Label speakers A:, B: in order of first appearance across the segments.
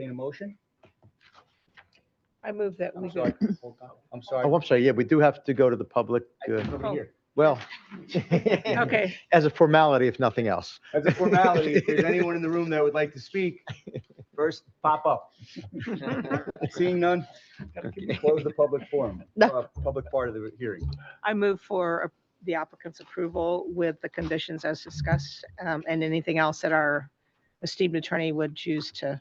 A: entertain a motion?
B: I move that we
A: I'm
B: go.
A: sorry. hold on. I'm sorry.
C: Oh, I'm sorry, yeah, we do have to go to the public,
A: I
C: uh,
A: think over
B: Oh.
A: here.
C: well,
B: Okay,
C: as a formality, if nothing else.
D: Oh.
A: As a formality, if there's anyone in the room that would like to speak, first pop up. Seeing none, close the public forum, uh, public part of the hearing.
B: I move for the applicant's approval with the conditions as discussed um, and anything else that our esteemed attorney would choose to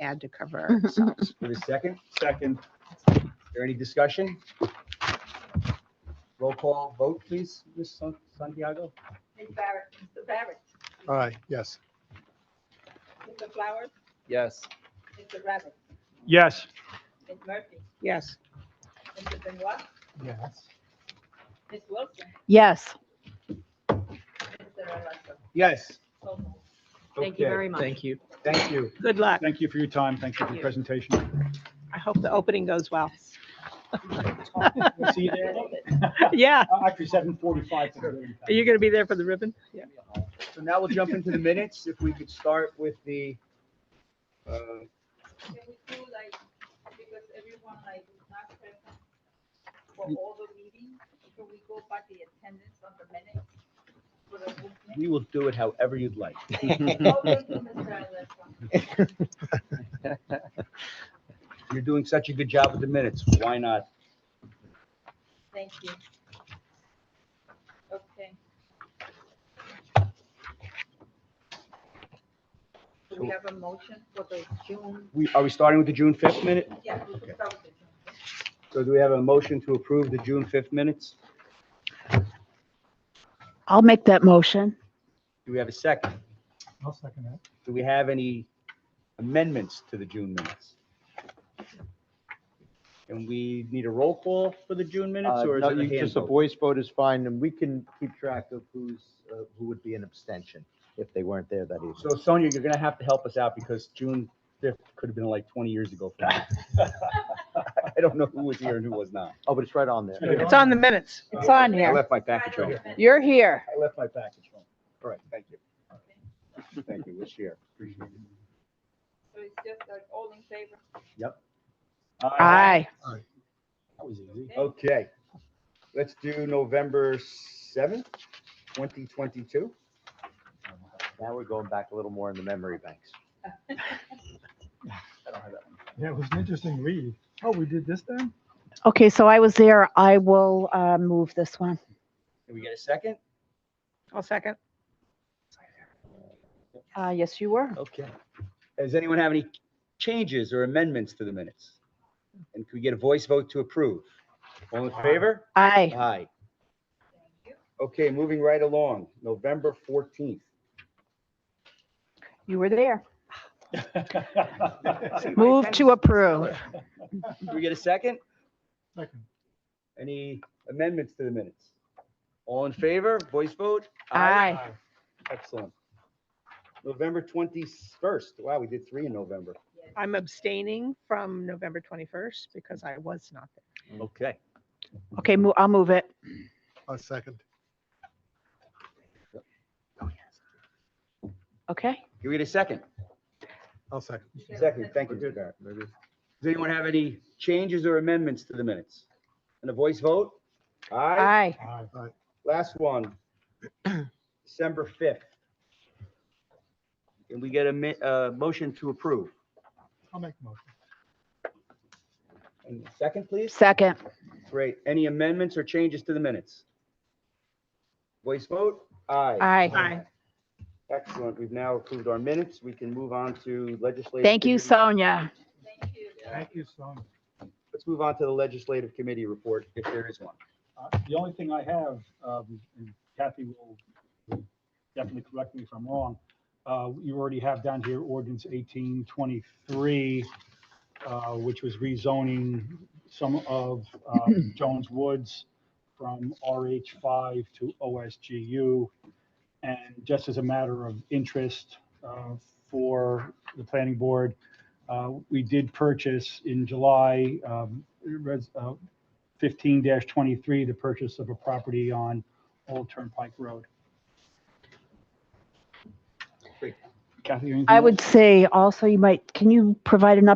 B: add to cover
E: Mm-hmm.
B: ourselves.
A: Give a second. Second. Is there any discussion? Roll call vote, please, Ms. San- Santiago?
F: Ms. Barrett, Mr. Barrett,
G: Aye, yes.
F: Mr. Flowers,
A: Yes.
F: Mr. Rabbit,
G: Yes.
F: Ms. Murphy,
B: Yes.
F: Mr. Benoit,
G: Yes.
F: Ms. Wilson,
B: Yes.
F: Mr. Alonso.
A: Yes.
F: So moved.
D: Thank you
A: Okay.
D: very much.
C: you.
A: Thank you.
B: Good luck.
G: Thank you for your time. Thank you for your presentation.
B: I hope the opening goes well.
G: We'll See you there.
B: Yeah.
G: Uh, Actually, seven forty-five.
B: Are you going to be there for the ribbon? Yeah.
A: So now we'll jump into the minutes. If we could start with the, uh,
F: Can we do like, because everyone like is not present for all the meetings, can we go by the attendance on the minutes? For the movement?
A: we will do it however you'd like.
F: Oh, thank you, Mr. Alonso.
A: You're doing such a good job with the minutes. Why not?
F: Thank you. Okay. Do we have a motion for the June?
A: We, are we starting with the June 5th minute?
F: Yeah, we can start with the June.
A: So do we have a motion to approve the June 5th minutes?
E: I'll make that motion.
A: Do we have a second?
G: I'll second that.
A: Do we have any amendments to the June minutes? And we need a roll call for the June minutes or is it a hand
C: Uh, Just a
A: vote?
C: voice vote is fine, and we can keep track of who's, uh, who would be an abstention if they weren't there that evening.
A: So Sonia, you're gonna have to help us out because June 5th could have been like 20 years ago. for me. I don't know who was here and who was not.
C: Oh, but it's right on there.
B: It's on the minutes.
E: It's on
A: I
E: here.
A: left my package home.
E: You're here.
A: I left my package home. All right, thank you. Thank you, we'll share. Appreciate it.
F: So it's just like all in favor?
E: Aye.
G: That was easy.
A: Okay, let's do November seventh, twenty twenty-two.
C: Now we're going back a little more in the memory banks.
G: Yeah, it was an interesting read. Oh, we did this then?
E: Okay, so I was there. I will uh, move this one.
A: Can we get a second?
B: I'll second.
E: Uh, Yes, you were.
A: Okay. Does anyone have any changes or amendments to the minutes? And can we get a voice vote to approve? All in favor?
E: Aye.
A: Aye.
F: Thank you.
A: Okay, moving right along, November fourteenth.
E: You were there. Move to approve.
A: Can we get a second?
G: Second.
A: Any amendments to the minutes? All in favor, voice vote?
E: Aye.
A: Excellent. November twenty-first. Wow, we did three in November.
F: Yes.
B: I'm abstaining from November 21st because I was not there.
A: Okay.
E: Okay, mo- I'll move it.
G: A second.
E: Okay.
A: Can we get a second?
G: I'll second.
F: You can
A: Second,
F: send-
A: thank you, Mr. Barrett. Does anyone have any changes or amendments to the minutes? And a voice vote? Aye.
E: Aye.
G: Aye.
A: Last one. December fifth. Can we get a mi- uh, motion to approve?
G: I'll make the motion.
A: And second, please?
E: Second.
A: Great. Any amendments or changes to the minutes? Voice vote? Aye.
E: Aye.
A: Excellent. We've now approved our minutes. We can move on to legislative.
E: Thank you,
A: committee-
E: Sonia.
F: Thank you.
G: Thank you so much.
A: Let's move on to the legislative committee report, if there is one.
G: Uh, The only thing I have, um, and Kathy will will definitely correct me if I'm wrong, uh, you already have down here ordinance 1823, uh, which was rezoning some of um, Jones Woods from RH5 to OSGU. And just as a matter of interest uh, for the planning board, uh, we did purchase in July um, res- uh, fifteen twenty-three, the purchase of a property on Old Turnpike Road. Kathy, anything?
E: I
G: else?
E: would say also you might, can you provide an update